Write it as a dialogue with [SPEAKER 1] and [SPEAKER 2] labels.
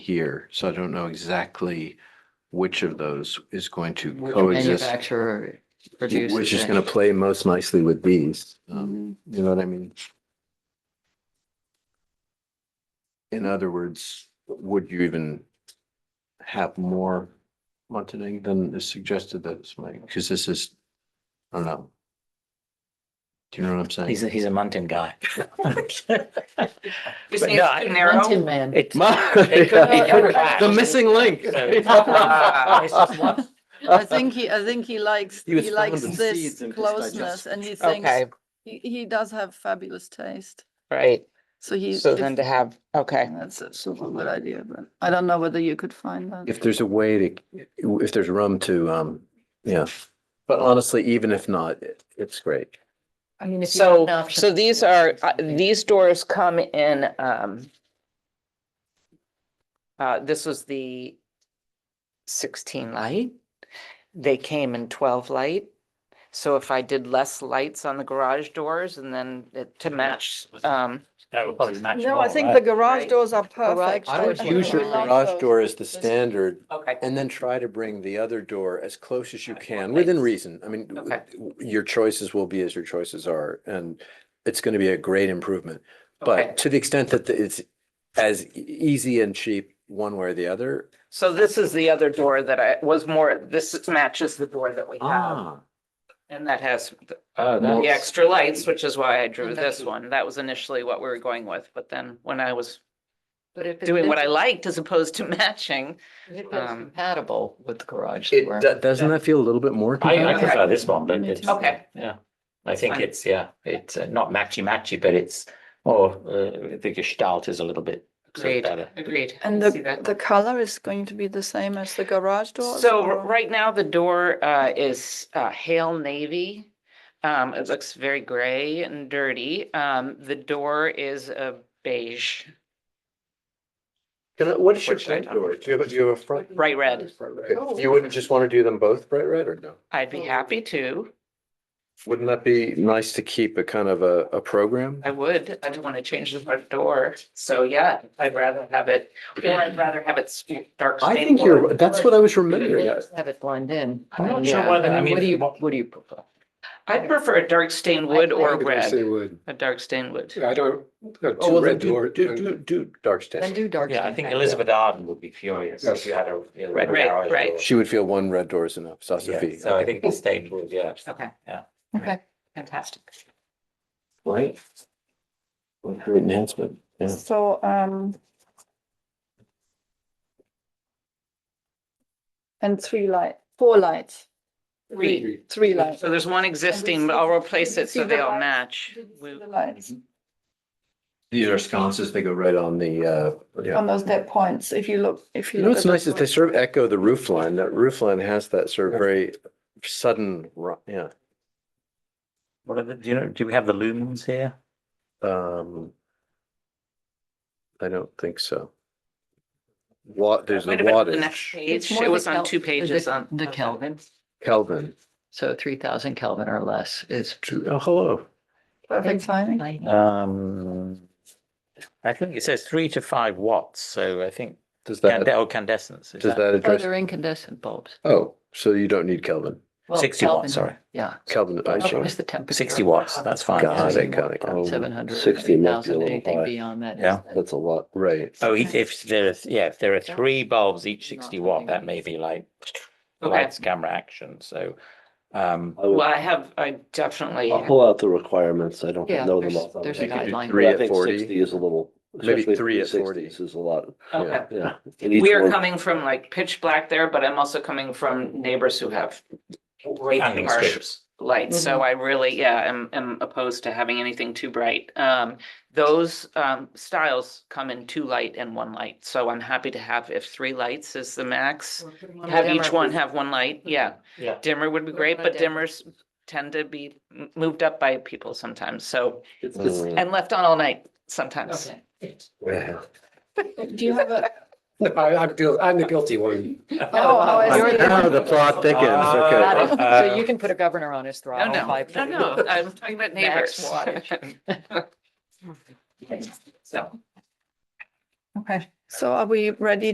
[SPEAKER 1] here, so I don't know exactly which of those is going to
[SPEAKER 2] Which
[SPEAKER 1] coexist.
[SPEAKER 2] Manufacturer produces.
[SPEAKER 1] Which is
[SPEAKER 2] it.
[SPEAKER 1] gonna play most nicely with these, um,
[SPEAKER 2] Mhm.
[SPEAKER 1] you know what I mean? In other words, would you even have more Montague than is suggested that's my, because this is, I don't know. Do you know what I'm saying?
[SPEAKER 3] He's a, he's a mountain guy.
[SPEAKER 4] Just
[SPEAKER 3] But
[SPEAKER 4] need
[SPEAKER 3] no,
[SPEAKER 4] to
[SPEAKER 3] I-
[SPEAKER 4] narrow.
[SPEAKER 2] Mountain man.
[SPEAKER 3] It's
[SPEAKER 1] My-
[SPEAKER 3] It could be
[SPEAKER 1] Yeah. The
[SPEAKER 3] covered.
[SPEAKER 1] missing link.
[SPEAKER 3] It's just one.
[SPEAKER 5] I think he, I think he likes,
[SPEAKER 1] He was
[SPEAKER 5] he likes
[SPEAKER 1] found in seeds
[SPEAKER 5] this
[SPEAKER 1] and just
[SPEAKER 5] closeness
[SPEAKER 1] digest-
[SPEAKER 5] and he thinks,
[SPEAKER 4] Okay,
[SPEAKER 5] he, he does have fabulous taste.
[SPEAKER 4] right.
[SPEAKER 5] So he.
[SPEAKER 4] So
[SPEAKER 5] if-
[SPEAKER 4] then to have, okay.
[SPEAKER 5] That's a super good idea, but I don't know whether you could find that.
[SPEAKER 1] If there's a way to, if there's room to, um, yeah, but honestly, even if not, it- it's great.
[SPEAKER 2] I mean, if you have an
[SPEAKER 4] So,
[SPEAKER 2] option-
[SPEAKER 4] so these are, uh, these doors come in, um, uh, this was the sixteen light. They came in twelve light. So if I did less lights on the garage doors and then it- to match, um,
[SPEAKER 3] That would probably match.
[SPEAKER 6] No,
[SPEAKER 3] more,
[SPEAKER 6] I think
[SPEAKER 3] right?
[SPEAKER 6] the garage
[SPEAKER 4] Right.
[SPEAKER 6] doors are
[SPEAKER 5] Garage
[SPEAKER 6] perfect.
[SPEAKER 1] I would
[SPEAKER 5] doors
[SPEAKER 6] think
[SPEAKER 5] are
[SPEAKER 1] use your
[SPEAKER 5] we like
[SPEAKER 1] garage
[SPEAKER 5] those.
[SPEAKER 1] door as the standard
[SPEAKER 4] okay,
[SPEAKER 1] and then try to bring the other door as close as you
[SPEAKER 4] Right,
[SPEAKER 1] can,
[SPEAKER 4] more
[SPEAKER 1] within
[SPEAKER 4] lights.
[SPEAKER 1] reason. I mean, w-
[SPEAKER 4] Okay.
[SPEAKER 1] w- your choices will be as your choices are, and it's going to be a great improvement.
[SPEAKER 4] Okay.
[SPEAKER 1] But to the extent that the- it's as e- easy and cheap one way or the other.
[SPEAKER 4] so this is the other door that I was more, this matches the door that we have. And that has the-
[SPEAKER 3] Oh,
[SPEAKER 4] the
[SPEAKER 3] that's-
[SPEAKER 4] extra lights, which is why I drew
[SPEAKER 2] And
[SPEAKER 4] this
[SPEAKER 2] that's-
[SPEAKER 4] one. That was initially what we were going with, but then when I was
[SPEAKER 2] But if it-
[SPEAKER 4] doing what I liked as opposed to matching.
[SPEAKER 2] if it's
[SPEAKER 4] um,
[SPEAKER 2] Compatible with the garage
[SPEAKER 1] It,
[SPEAKER 2] door.
[SPEAKER 1] do- doesn't that feel a little bit more?
[SPEAKER 3] I, I
[SPEAKER 4] Okay.
[SPEAKER 3] prefer this one, but
[SPEAKER 5] Me
[SPEAKER 3] it's.
[SPEAKER 5] too.
[SPEAKER 4] Okay.
[SPEAKER 3] Yeah, I think
[SPEAKER 4] fine.
[SPEAKER 3] it's, yeah, it's uh, not matchy matchy, but it's more, uh, the gestalt is a little bit. sort of
[SPEAKER 4] Agreed.
[SPEAKER 3] better.
[SPEAKER 4] Agreed.
[SPEAKER 5] And
[SPEAKER 4] I
[SPEAKER 5] the,
[SPEAKER 4] see that.
[SPEAKER 5] the color is going to be the same as the garage door?
[SPEAKER 4] So r- right now the door uh, is uh, hail navy. Um, It looks very gray and dirty. Um, The door is a beige,
[SPEAKER 1] Can I, what is your
[SPEAKER 4] Which I
[SPEAKER 1] front
[SPEAKER 4] don't-
[SPEAKER 1] door? Do you have, a- do you have a front?
[SPEAKER 4] bright red.
[SPEAKER 1] Okay. You wouldn't just want to do them both bright red or no?
[SPEAKER 4] I'd be happy to.
[SPEAKER 1] Wouldn't that be nice to keep a kind of a, a program?
[SPEAKER 4] I would. I don't want to change the front door. So yeah, I'd rather have it, or I'd rather have it s- dark.
[SPEAKER 1] I
[SPEAKER 4] stained
[SPEAKER 1] think you're,
[SPEAKER 4] wood.
[SPEAKER 1] that's what I was remembering. I-
[SPEAKER 2] Have it blend in.
[SPEAKER 3] I'm not
[SPEAKER 4] sure
[SPEAKER 2] Yeah,
[SPEAKER 3] whether- I mean,
[SPEAKER 2] What do you,
[SPEAKER 3] what-
[SPEAKER 2] what do you prefer?
[SPEAKER 4] I'd prefer a dark stained wood
[SPEAKER 2] I- I
[SPEAKER 4] or
[SPEAKER 7] If I Say
[SPEAKER 4] red,
[SPEAKER 7] wood.
[SPEAKER 4] a dark stained wood.
[SPEAKER 7] I don't, no,
[SPEAKER 1] Oh,
[SPEAKER 7] two
[SPEAKER 1] well, then
[SPEAKER 7] red
[SPEAKER 1] do,
[SPEAKER 7] door.
[SPEAKER 1] do, do, do dark
[SPEAKER 2] Then
[SPEAKER 1] stain.
[SPEAKER 2] do dark.
[SPEAKER 3] Yeah, I
[SPEAKER 2] skin
[SPEAKER 3] think
[SPEAKER 2] back.
[SPEAKER 3] Elizabeth Arden would be furious if
[SPEAKER 7] Yes.
[SPEAKER 3] you had a. a garage
[SPEAKER 4] Right, right, right.
[SPEAKER 3] door.
[SPEAKER 1] She would feel one red door is enough,
[SPEAKER 3] Yeah,
[SPEAKER 1] Sasafi.
[SPEAKER 3] So I think the stage would, yeah.
[SPEAKER 4] Okay.
[SPEAKER 3] Yeah.
[SPEAKER 2] Okay.
[SPEAKER 4] Fantastic.
[SPEAKER 1] Right? What a Great enhancement. Yeah.
[SPEAKER 5] So, um. And three light, four lights,
[SPEAKER 4] Three.
[SPEAKER 5] three lights.
[SPEAKER 4] So there's one existing, but I'll replace it so they all match. We-
[SPEAKER 5] The lights
[SPEAKER 1] These are sconces, they go right on the, uh, yeah.
[SPEAKER 5] on those dead points, if you look, if you.
[SPEAKER 1] You know,
[SPEAKER 5] look
[SPEAKER 1] what's
[SPEAKER 5] at the
[SPEAKER 1] nice is they
[SPEAKER 5] points.
[SPEAKER 1] sort of echo the roof line. That roof line has that sort of very sudden, ru- yeah.
[SPEAKER 3] What are the, do you know, do we have the lumens here?
[SPEAKER 1] Um, I don't think so. Wa, there's a
[SPEAKER 4] Might have been the next
[SPEAKER 1] wattage,
[SPEAKER 2] It's
[SPEAKER 4] page.
[SPEAKER 2] more
[SPEAKER 4] It
[SPEAKER 2] the
[SPEAKER 4] was on
[SPEAKER 2] Kel-
[SPEAKER 4] two
[SPEAKER 2] the-
[SPEAKER 4] pages on.
[SPEAKER 2] The
[SPEAKER 4] okay.
[SPEAKER 2] Kelvin,
[SPEAKER 1] Kelvin.
[SPEAKER 2] so three thousand Kelvin or less is.
[SPEAKER 1] Oh, hello.
[SPEAKER 5] Perfect timing.
[SPEAKER 3] Uh, Um, I think it says three to five watts, so I think
[SPEAKER 1] Does
[SPEAKER 3] cande-
[SPEAKER 1] that,
[SPEAKER 3] or candescence. is
[SPEAKER 1] does that
[SPEAKER 2] Oh,
[SPEAKER 1] address?
[SPEAKER 2] they're incandescent bulbs.
[SPEAKER 1] Oh, so you don't need Kelvin.
[SPEAKER 2] Well,
[SPEAKER 3] 60 watt,
[SPEAKER 2] Kelvin,
[SPEAKER 3] sorry.
[SPEAKER 2] Yeah.
[SPEAKER 1] Kelvin, I see.
[SPEAKER 2] It's the temperature.
[SPEAKER 3] Sixty watts, that's fine.
[SPEAKER 1] Got it, got it, got it.
[SPEAKER 2] Seven hundred,
[SPEAKER 7] 60
[SPEAKER 2] three
[SPEAKER 7] Oh, might be a
[SPEAKER 2] thousand,
[SPEAKER 7] little
[SPEAKER 2] anything
[SPEAKER 7] high.
[SPEAKER 2] beyond that. is
[SPEAKER 3] Yeah.
[SPEAKER 2] then-
[SPEAKER 7] That's a lot.
[SPEAKER 1] Right.
[SPEAKER 3] Oh, if- if there are, yeah, if there are three bulbs each sixty watt, that may be like
[SPEAKER 4] Okay.
[SPEAKER 3] lights, camera, action, so. Um,
[SPEAKER 7] I
[SPEAKER 4] Well,
[SPEAKER 7] would-
[SPEAKER 4] I have, I definitely,
[SPEAKER 7] I'll pull out the requirements. I don't
[SPEAKER 2] Yeah,
[SPEAKER 7] know them
[SPEAKER 2] there's-
[SPEAKER 7] off. the top of
[SPEAKER 2] there's
[SPEAKER 7] my
[SPEAKER 2] a
[SPEAKER 7] head.
[SPEAKER 1] could do
[SPEAKER 2] guideline.
[SPEAKER 1] three
[SPEAKER 7] But I
[SPEAKER 1] at
[SPEAKER 7] think
[SPEAKER 1] 40.
[SPEAKER 7] Sixty is a little.
[SPEAKER 1] Maybe
[SPEAKER 7] especially
[SPEAKER 1] three at
[SPEAKER 7] 360s Is a lot,
[SPEAKER 4] okay.
[SPEAKER 7] yeah. And each
[SPEAKER 4] We are
[SPEAKER 7] one-
[SPEAKER 4] coming from like pitch black there, but I'm also coming from neighbors who have way too
[SPEAKER 3] Hanging
[SPEAKER 4] harsh
[SPEAKER 3] strips.
[SPEAKER 4] lights.
[SPEAKER 2] Mm-hmm.
[SPEAKER 4] So I really, yeah, am, am opposed to having anything too bright. Um, those, um, styles come in two light and one light. So I'm happy to have, if three lights is the max, have each one have one
[SPEAKER 2] Mm-hmm.
[SPEAKER 4] light. Yeah.
[SPEAKER 3] yeah,
[SPEAKER 4] Dimmer would be
[SPEAKER 2] What
[SPEAKER 4] great,
[SPEAKER 2] about
[SPEAKER 4] but
[SPEAKER 2] dimmer?
[SPEAKER 4] dimmers tend to be m- moved up by people sometimes. So,
[SPEAKER 7] It's just-
[SPEAKER 1] Mm.
[SPEAKER 4] and left on all night sometimes.
[SPEAKER 2] Okay.
[SPEAKER 1] Yeah.
[SPEAKER 5] Do you have a?
[SPEAKER 7] I, I'm guil- I'm the guilty one.
[SPEAKER 5] Oh, oh, I
[SPEAKER 2] You're
[SPEAKER 5] see.
[SPEAKER 2] the-
[SPEAKER 1] Now the plot thickens,
[SPEAKER 3] Ah.
[SPEAKER 1] okay.
[SPEAKER 2] Got it. So you can put a governor on his
[SPEAKER 4] No,
[SPEAKER 2] throttle.
[SPEAKER 4] no,
[SPEAKER 2] by
[SPEAKER 4] no, no, I'm talking about
[SPEAKER 2] Max
[SPEAKER 4] neighbors. So.
[SPEAKER 2] Okay.
[SPEAKER 5] So are we ready